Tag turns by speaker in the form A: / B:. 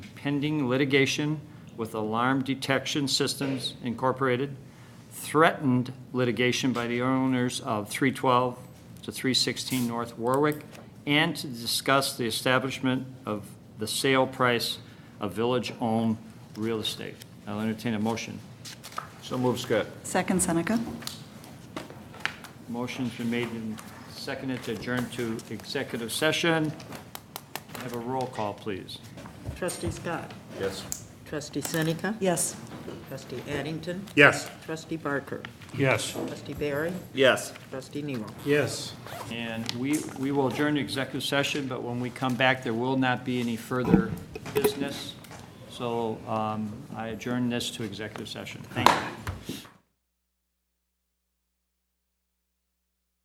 A: pending litigation with Alarm Detection Systems Incorporated, threatened litigation by the owners of 312 to 316 North Warwick, and to discuss the establishment of the sale price of village-owned real estate. I'll entertain a motion.
B: So move, Scott.
C: Second Seneca.
A: Motion's been made and seconded to adjourn to executive session. Have a roll call, please.
D: Trustee Scott.
B: Yes.
D: Trustee Seneca.
C: Yes.
D: Trustee Addington.
B: Yes.
D: Trustee Barker.
B: Yes.
D: Trustee Barry.
B: Yes.
D: Trustee Nero.
B: Yes.
A: And we, we will adjourn to executive session, but when we come back, there will not be any further business. So um, I adjourn this to executive session. Thank you.